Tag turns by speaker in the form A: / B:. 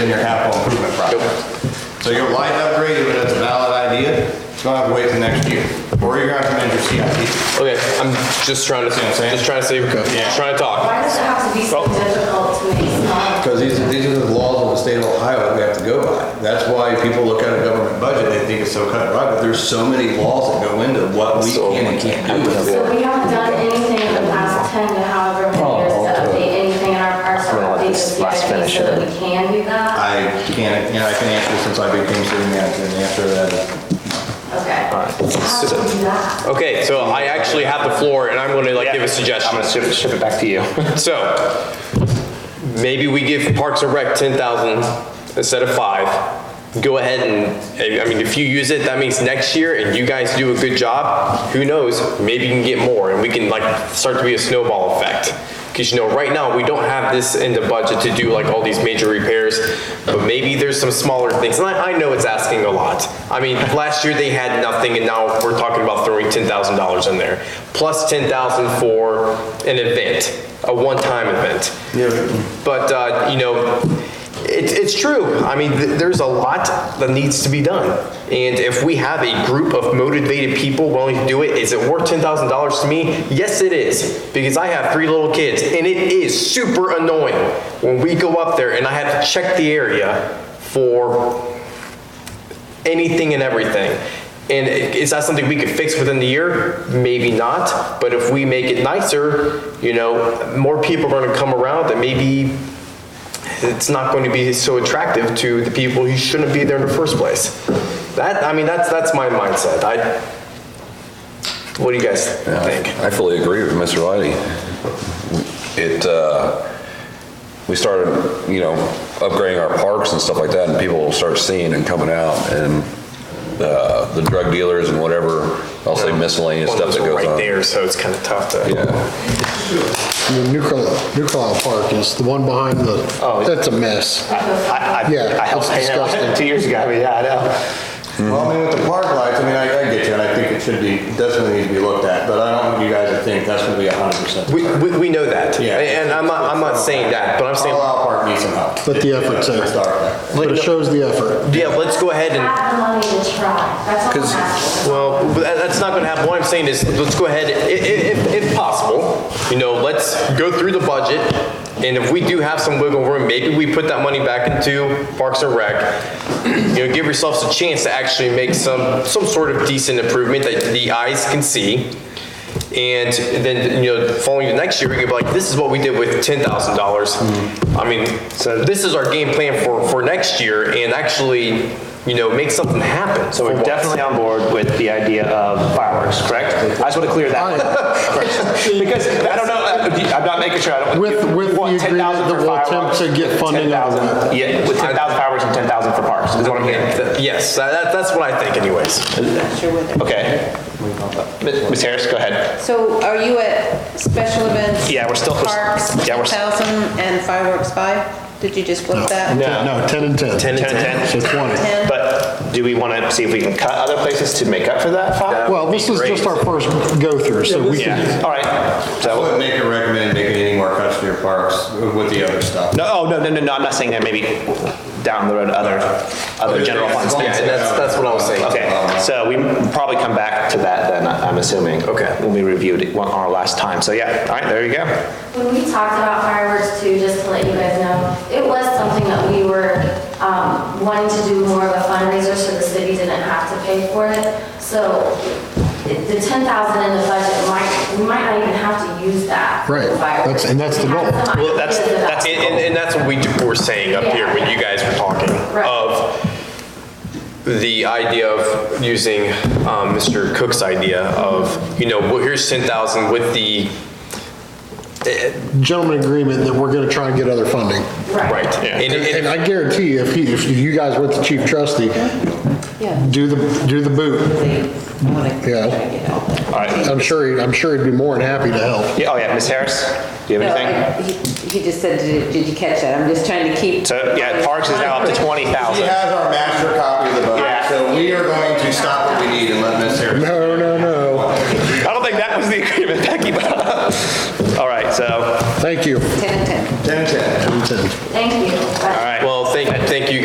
A: in your capital improvement project. So your light upgrade, even if it's a valid idea, it's gonna have to wait till next year, or you're gonna have to amend your CIP.
B: Okay, I'm just trying to,
A: See what I'm saying?
B: just trying to save, just trying to talk.
C: Why does it have to be so difficult to make small?
A: Because these, these are the laws of the state of Ohio that we have to go by. That's why people look at a government budget, they think it's so cut and dry, but there's so many laws that go into what we can and can't do.
C: So we haven't done anything in the past 10 to however
B: Oh,
C: many years to update anything in our parcel,
D: Well,
C: update the
D: this last
C: CIP
D: finish
C: so that
D: it.
C: we can do that?
A: I can't, you know, I can answer since I became city manager, and the answer to that is,
C: Okay. How do we do that?
B: Okay, so I actually have the floor and I'm gonna like give a
D: I'm
B: suggestion.
D: gonna ship, ship it back to you.
B: So, maybe we give Parks and Rec ten thousand instead of five. Go ahead and, I mean, if you use it, that means next year and you guys do a good job, who knows, maybe you can get more and we can like start to be a snowball effect. Cause you know, right now, we don't have this in the budget to do like all these major repairs, but maybe there's some smaller things. And I, I know it's asking a lot. I mean, last year they had nothing and now we're talking about throwing ten thousand dollars in there. Plus ten thousand for an event, a one-time event. But, uh, you know, it, it's true. I mean, th- there's a lot that needs to be done. And if we have a group of motivated people willing to do it, is it worth $10,000 to me? Yes, it is. Because I have three little kids and it is super annoying when we go up there and I have to check the area for anything and everything. And is that something we could fix within the year? Maybe not, but if we make it nicer, you know, more people are gonna come around that maybe it's not going to be so attractive to the people who shouldn't be there in the first place. That, I mean, that's, that's my mindset. I, what do you guys think?
E: I fully agree with Mr. Lighty. It, uh, we started, you know, upgrading our parks and stuff like that, and people will start seeing and coming out, and uh, the drug dealers and whatever, I'll say miscellaneous
B: One
E: stuff
B: of
E: that
B: those are
E: goes
B: right
E: on.
B: there, so it's kind of tough to.
E: Yeah,
F: Nuclear, Nuclear Park is the one behind the, that's a mess.
D: I, I,
F: Yeah,
D: I helped
F: it's
D: pay that
F: disgusting.
D: two years ago, I mean, yeah, I know.
A: well, I mean, with the park lights, I mean, I, I get you, and I think it should be, definitely needs to be looked at, but I don't want you guys to think that's gonna be a hundred percent.
B: We, we, we know that.
A: Yeah.
B: And I'm not, I'm not saying that, but I'm saying,
A: Carlisle Park needs some help.
F: But the effort's there.
A: Start.
F: But it shows the effort.
B: yeah, let's go ahead and.
C: Have the money to try, that's all I'm
E: 'Cause-
C: asking.
B: Well, but that- that's not going to happen. What I'm saying is, let's go ahead, i- i- if, if possible, you know, let's go through the budget, and if we do have some wiggle room, maybe we put that money back into Parks and Rec. You know, give yourselves a chance to actually make some, some sort of decent improvement that the eyes can see. And then, you know, following the next year, we could be like, this is what we did with ten thousand dollars.
D: Mm-hmm.
B: I mean, so this is our game plan for, for next year, and actually, you know, make something happen.
D: So
B: for
D: we're
B: once.
D: definitely on board with the idea of fireworks, correct? I just want to clear that. Correct. Because I don't know, uh, I'm not making sure, I don't.
F: With- with
D: you want
F: the agreement
D: 10,000
F: that
D: for
F: we'll attempt
D: fireworks,
F: to get funding out of
D: 10,000
F: that.
D: Yeah, with 10,000 fireworks and 10,000 for parks, is what I'm hearing.
B: Th- uh, Yes, that- that, that's what I think anyways.
D: Okay. Ms. Ms. Harris, go ahead.
G: So are you at special events?
D: Yeah, we're still-
G: Parks,
D: yeah, we're-
G: 10,000 and fireworks 5? Did you just flip that?
F: No, 10 and 10.
B: 10 and
D: 10 and 10.
F: So 20.
G: 10?
D: But do we want to see if we can cut other places to make up for that five?
F: Well, this is just our first go-through, so we can,
D: Yeah, all right.
A: I
D: So,
A: wouldn't make or recommend making any more cuts to your parks with the other stuff.
D: No, oh, no, no, no, no, I'm not saying that, maybe down the road, other, other general funds.
B: Yeah, and that's- that's what I was saying.
A: Uh,
D: Okay, so we probably come back to that then, I- I'm assuming.
B: Okay.
D: When we reviewed it one, our last time, so yeah, all right, there you go.
C: When we talked about fireworks too, just to let you guys know, it was something that we were um, wanting to do more of a fundraiser so the city didn't have to pay for it. So it- the 10,000 in the budget might, we might not even have to use that. for
F: Right.
C: fireworks.
F: That's- and that's the
C: We have
F: goal.
C: some
B: Well, that's,
C: ideas about
B: that's, and, and- and that's what we do- were saying up here when you guys were talking
C: Right.
B: of the idea of using, um, Mr. Cook's idea of, you know, well, here's 10,000 with the,
F: gentleman agreement that we're gonna try and get other funding.
B: right. And-
F: And
B: and-
F: and I guarantee you, if he, if you guys went to chief trustee, do the, do the boot. Yeah,
D: All right,
F: I'm sure, he- I'm sure he'd be more than happy to help.
D: yeah, oh yeah, Ms. Harris, do you
H: No,
D: have anything?
H: I- He he just said, did did you catch that? I'm just trying to keep.
D: So, yeah, parks is now up to
A: He
D: 20,000.
A: has our master copy of the budget,
D: Yeah.
A: so we are going to stop what we need and let Miss Harris.
F: No, no, no.
D: I don't think that was the agreement, Becky, but, all right, so,
F: Thank you.
H: Ten and ten.
A: 10, 10.
F: 10 and 10.
C: Thank you.
D: all right.
B: Well, thank, thank you